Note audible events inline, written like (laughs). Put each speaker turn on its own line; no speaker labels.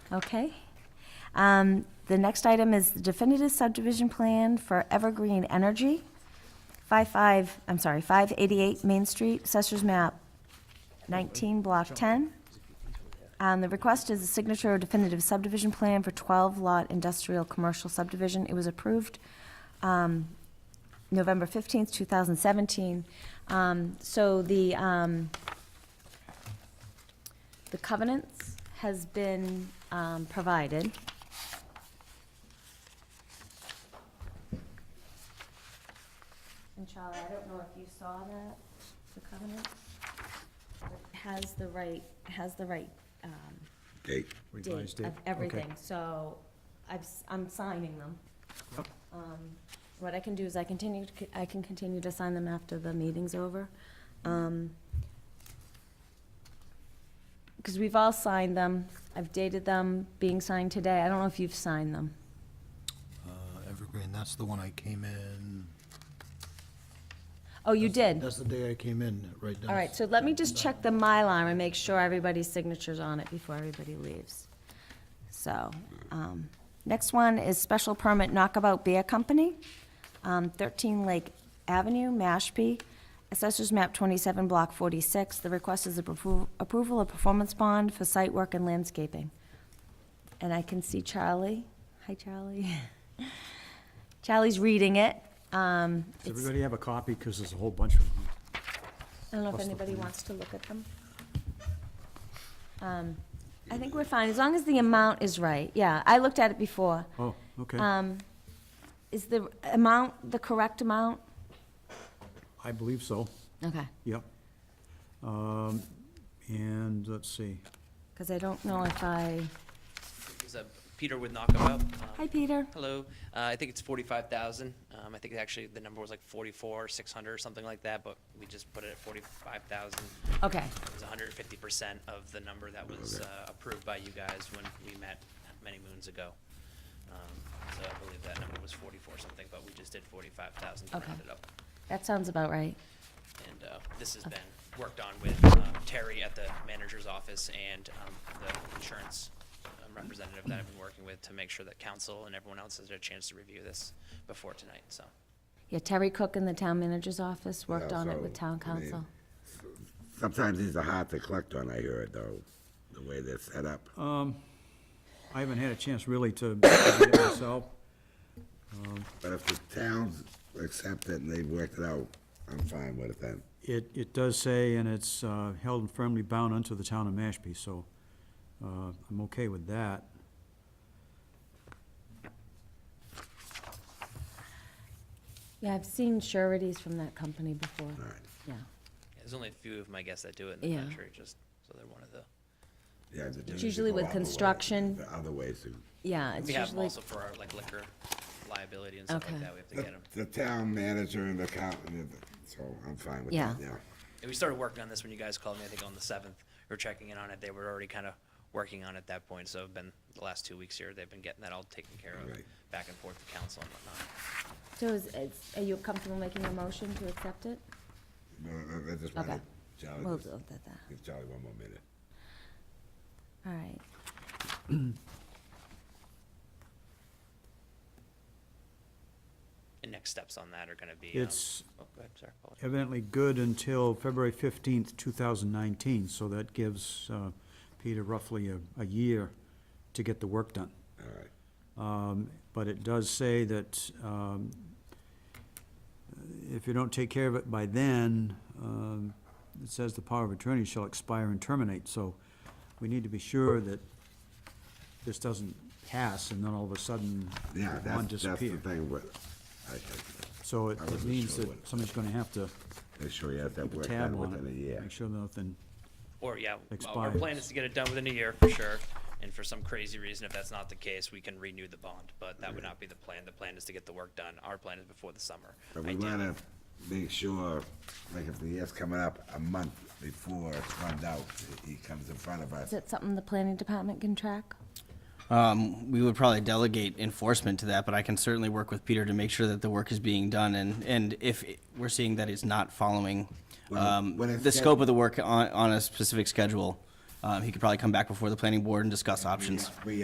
Okay. Um, The next item is the definitive subdivision plan for Evergreen Energy, 55, I'm sorry, 588 Main Street, Assessor's Map 19, Block 10. Um, The request is a signature definitive subdivision plan for 12-lot industrial commercial subdivision. It was approved um, November 15th, 2017. Um, So the, um, the covenants has been um, provided. And Charlie, I don't know if you saw that, the covenant? Has the right, has the right um,
Date.
date of everything, so I've, s- I'm signing them. Um, What I can do is I continue, to c- I can continue to sign them after the meeting's over. Um, Because we've all signed them, I've dated them, being signed today, I don't know if you've signed them.
Uh, Evergreen, that's the one I came in.
Oh, you did?
That's the day I came in, right?
All right, so let me just check the Mylar and make sure everybody's signature's on it before everybody leaves. So, um, next one is special permit Knockabout Beer Company, um, thirteen Lake Avenue, Mashpee, assessors map twenty-seven, block forty-six. The request is appro- approval of performance bond for site work and landscaping. And I can see Charlie. Hi, Charlie. (laughs) Charlie's reading it. Um,
Does
it's-
everybody have a copy? Because there's a whole bunch of them.
I don't know if
Plus the
anybody
plan.
wants to look at them. Um, I think we're fine, as long as the amount is right, yeah, I looked at it before.
Oh, okay.
Um, Is the amount the correct amount?
I believe so,
Okay.
yep. Um, And, let's see,
Because I don't know if I,
Is that Peter with Knockabout? Um,
hi, Peter.
Hello. Uh, I think it's forty-five thousand. Um, I think actually the number was like forty-four, six hundred or something like that, but we just put it at forty-five thousand.
Okay,
It was hundred and fifty percent of the number that was, uh, approved by you guys when we met many moons ago. Um, So I believe that number was forty-four something, but we just did forty-five thousand to
Okay.
round it up.
that sounds about right.
And uh, this has been worked on with um, Terry at the manager's office and um, the insurance um, representative that I've been working with to make sure that council and everyone else has had a chance to review this before tonight, so.
Yeah, Terry Cook in the town manager's office worked
Yeah,
on it
so,
with town
I mean-
council.
Sometimes these are hard to collect on, I heard, though, the way they're set up.
Uh. I haven't had a chance really to (coughs) read it myself.
But if the towns accept it and they've worked it out, I'm fine with it then.
It, it does say, and it's uh, held and firmly bound unto the town of Mashpee, so uh, I'm okay with that.
Yeah, I've seen sureties from that company before,
All right,
yeah.
There's only a few of my guests that do it in the
Yeah.
country, just, so they're one of the,
yeah. but then
It's
you
usually
go
with
all the way-
construction.
the Other ways to,
Yeah, it's
we have 'em
usually,
also for our like liquor liability and stuff
Okay.
like that, we have to get
the,
them.
the town manager and the accountant, so I'm fine with
Yeah.
that now.
And we started working on this when you guys called me, I think on the seventh, we were checking in on it, they were already kind of working on it at that point, so it's been, the last two weeks here, they've been getting that all taken care of,
Right.
back and forth to council and whatnot.
so is, is- are you comfortable making a motion to accept it?
No, no, no, I just wanted,
Okay.
Charlie,
We'll
just-
do that, that.
give Charlie one more minute.
All right.
And next steps on that are gonna be. um,
It's
Oh, go ahead, sorry. apologies.
evidently good until February fifteenth, two thousand nineteen, so that gives uh, Peter roughly a, a year to get the work done.
All right.
Um, But it does say that um, if you don't take care of it by then, um, it says the power of attorney shall expire and terminate. So we need to be sure that this doesn't pass and then all of a sudden
Yeah,
one
that's, that's the
disappear.
thing with, I think,
So it
I
it
wasn't
means
sure
that
what-
somebody's gonna have to
make sure you have that
keep a
worked
tab
out
on
within a
it,
year.
make sure nothing
Or, yeah, well, our
Expires.
plan is to get it done within a year, for sure. And for some crazy reason, if that's not the case, we can renew the bond, but that would not be the plan. The plan is to get the work done. Our plan is before the summer.
But we
ideally.
wanna make sure, like if the year's coming up a month before it's run out, he comes in front of
Is
us.
it something the planning department can track?
Um, we would probably delegate enforcement to that, but I can certainly work with Peter to make sure that the work is being done and, and if it- we're seeing that it's not following,
When-
um,
when it's
the
get-
scope of the um, work on, on a specific schedule, uh, he could probably come back before the planning board and discuss options.
We